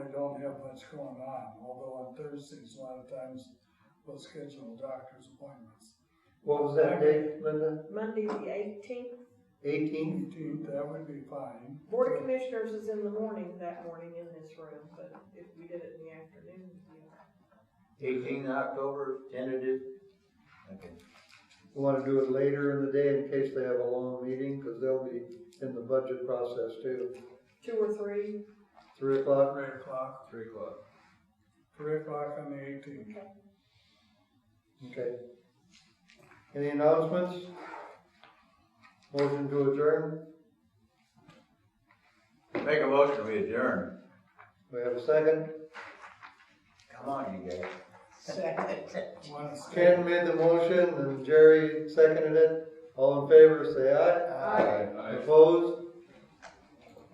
don't have much going on, although on Thursdays, a lot of times, we'll schedule doctor's appointments. What was that date, Linda? Monday, the eighteenth, Eighteenth? Eighteenth, that would be fine. Board of Commissioners is in the morning, that morning in this room, but if we did it in the afternoon, yeah. Eighteen October, tentative. Okay. Want to do it later in the day in case they have a long meeting, because they'll be in the budget process too. two or three. Three o'clock? Three o'clock, Three o'clock. three o'clock on the eighteenth. Okay. Any announcements? Motion to adjourn? Make a motion, we adjourn. We have a second? Come on, you guys. One is- Ken made the motion and Jerry seconded it. All in favor, say aye. Aye. Opposed?